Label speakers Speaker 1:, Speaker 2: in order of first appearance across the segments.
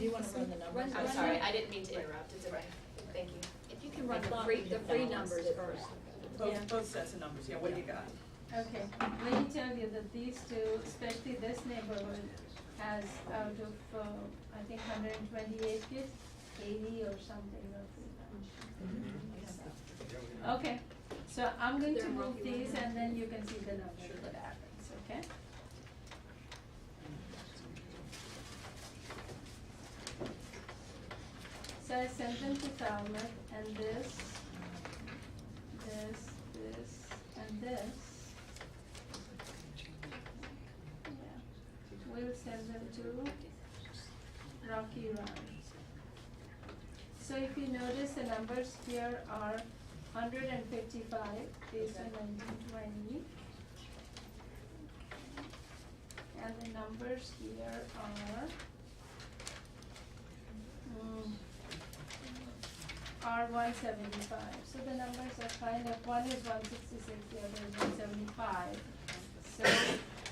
Speaker 1: you wanna run the numbers?
Speaker 2: I'm sorry, I didn't mean to interrupt, it's okay, thank you.
Speaker 3: If you can run
Speaker 2: The
Speaker 3: along
Speaker 2: free,
Speaker 3: with
Speaker 2: the
Speaker 3: the
Speaker 2: free
Speaker 3: balanced
Speaker 2: numbers
Speaker 3: difference.
Speaker 2: first.
Speaker 1: Yeah.
Speaker 4: Both, both sets of numbers, yeah, what do you got?
Speaker 5: Okay, let me tell you that these two, especially this neighborhood, has out of, uh, I think hundred and twenty-eight kids, eighty or something roughly. Okay, so I'm going to
Speaker 2: They're
Speaker 5: move
Speaker 2: working on
Speaker 5: these
Speaker 2: it.
Speaker 5: and then you can see the numbers what happens, okay? So I sent them to Falmouth and this, this, this, and this. Yeah, we'll send them to Rocky Run. So if you notice, the numbers here are hundred and fifty-five, these are nineteen twenty. And the numbers here are, mm, are one seventy-five, so the numbers are kind of, one is one sixty-six, the other is one seventy-five. So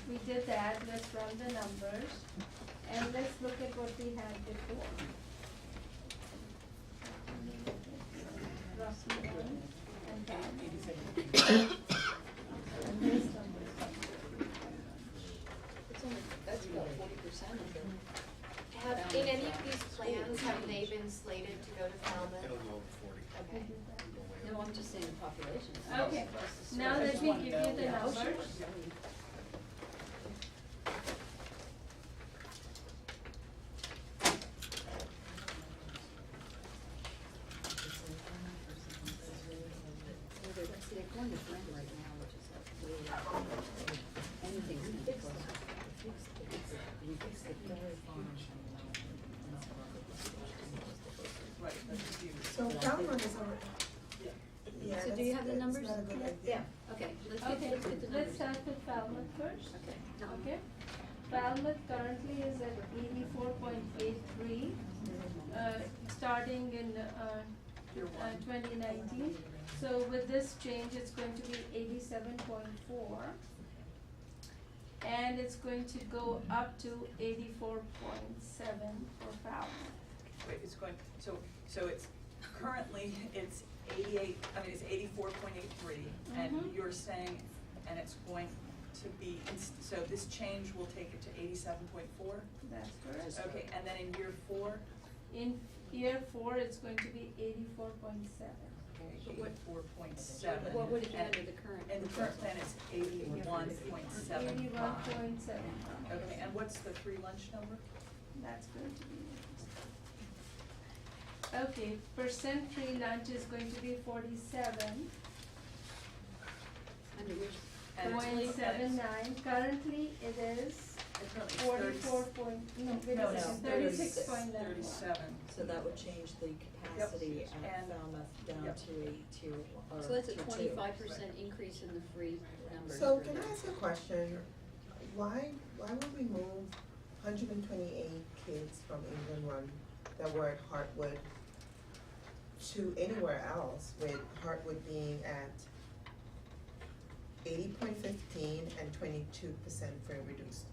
Speaker 5: we did that, let's run the numbers, and let's look at what we had before. Rocky Run and Valley. And these numbers.
Speaker 1: It's only, that's about forty percent of them.
Speaker 2: Have, in any of these plans, have they been slated to go to Falmouth?
Speaker 6: It'll go over forty.
Speaker 2: Okay.
Speaker 3: No, I'm just saying the population.
Speaker 5: Okay, now let me give you the numbers.
Speaker 3: They're see, they're going to blend right now, which is like way out. anything's gonna be close. You fix the dairy farm.
Speaker 4: Right, that's huge.
Speaker 7: So Calvin is already. Yeah,
Speaker 3: So do you
Speaker 7: that's-
Speaker 3: have the
Speaker 7: that's
Speaker 3: numbers?
Speaker 7: not a good idea.
Speaker 1: Yeah.
Speaker 3: Okay, let's get,
Speaker 5: Okay,
Speaker 3: let's get the
Speaker 5: let's
Speaker 3: numbers.
Speaker 5: start with Falmouth first,
Speaker 3: Okay.
Speaker 5: okay? Falmouth currently is at eighty-four point eight three, uh, starting in, uh,
Speaker 4: Your
Speaker 5: uh,
Speaker 4: one.
Speaker 5: twenty nineteen. So with this change, it's going to be eighty-seven point four. And it's going to go up to eighty-four point seven for Falmouth.
Speaker 4: Wait, it's going, so, so it's, currently, it's eighty-eight, I mean, it's eighty-four point eight-three, and
Speaker 5: Mhm.
Speaker 4: you're saying, and it's going to be, ins- so this change will take it to eighty-seven point four?
Speaker 5: That's correct.
Speaker 4: Okay, and then in year four?
Speaker 5: In year four, it's going to be eighty-four point seven.
Speaker 4: Eighty-four point seven.
Speaker 3: What would it be under the current?
Speaker 4: And the current plan is eighty-one point seven five.
Speaker 5: Eighty-one point seven five.
Speaker 4: Okay, and what's the free lunch number?
Speaker 5: That's going to be. Okay, percent free lunch is going to be forty-seven.
Speaker 3: Under which?
Speaker 4: And it's-
Speaker 5: Point seven nine, currently it is
Speaker 4: It's currently
Speaker 5: forty-four point, no, wait a
Speaker 1: no,
Speaker 5: second,
Speaker 1: no,
Speaker 5: thirty-six
Speaker 1: thirty-six,
Speaker 5: point nine one.
Speaker 4: Thirty-seven.
Speaker 1: So that would change the capacity at
Speaker 4: And-
Speaker 1: Falmouth down
Speaker 4: yep.
Speaker 1: to a tier, one- or tier two.
Speaker 3: So that's a twenty-five percent increase in the free numbers.
Speaker 7: So
Speaker 3: for
Speaker 7: can I
Speaker 3: that.
Speaker 7: ask a question? Why, why would we move hundred and twenty-eight kids from England Run that were at Hartwood to anywhere else, with Hartwood being at eighty point fifteen and twenty-two percent free and reduced?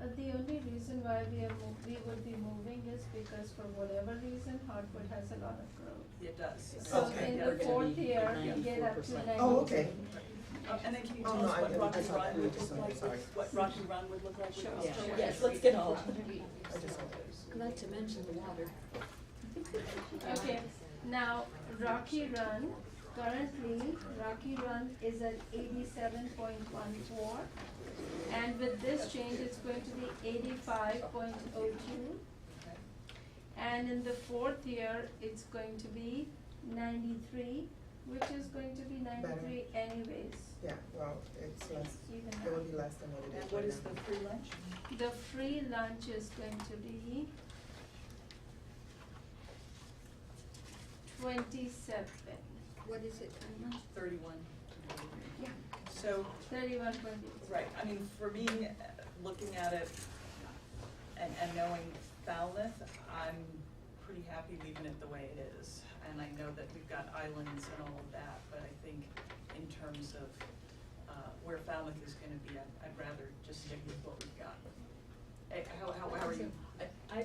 Speaker 5: Uh, the only reason why we are mov- we would be moving is because for whatever reason, Hartford has a lot of growth.
Speaker 4: It does.
Speaker 5: So
Speaker 7: Okay.
Speaker 5: in
Speaker 4: Yeah,
Speaker 3: We're
Speaker 5: the
Speaker 3: gonna
Speaker 4: okay.
Speaker 5: fourth
Speaker 3: be
Speaker 5: year, we get up to
Speaker 3: 94%.
Speaker 5: ninety.
Speaker 7: Oh, okay.
Speaker 4: Uh, And then can you
Speaker 7: Oh,
Speaker 4: tell
Speaker 7: no,
Speaker 4: us
Speaker 7: I
Speaker 4: what
Speaker 7: didn't- I
Speaker 4: Rocky
Speaker 7: saw that.
Speaker 4: Run would
Speaker 7: I just
Speaker 4: look like,
Speaker 7: saw it.
Speaker 4: with- what Rocky Run would look like? with
Speaker 5: Sure.
Speaker 4: those
Speaker 5: Yeah.
Speaker 4: children?
Speaker 1: Yes, let's get all of them.
Speaker 7: I just want this.
Speaker 3: Not to mention the water.
Speaker 5: Okay, now Rocky Run, currently Rocky Run is at eighty-seven point one four. And with this change, it's going to be eighty-five point oh two. And in the fourth year, it's going to be ninety-three, which is going to be ninety-three anyways,
Speaker 7: Yeah, well, it's less,
Speaker 5: even
Speaker 7: it
Speaker 5: now.
Speaker 7: would be less than what it is
Speaker 4: And what
Speaker 7: right
Speaker 4: is
Speaker 7: now.
Speaker 4: the free lunch?
Speaker 5: The free lunch is going to be twenty-seven,
Speaker 3: What is it, Tanya?
Speaker 4: Thirty-one.
Speaker 5: Yeah.
Speaker 4: So,
Speaker 5: thirty-one point eight.
Speaker 4: right, I mean, for me, uh, looking at it and, and knowing Falmouth, I'm pretty happy leaving it the way it is. And I know that we've got islands and all of that, but I think in terms of, uh, where Falmouth is gonna be, I'd, I'd rather just stick with what we've got. Eh, How, how, how are you? I-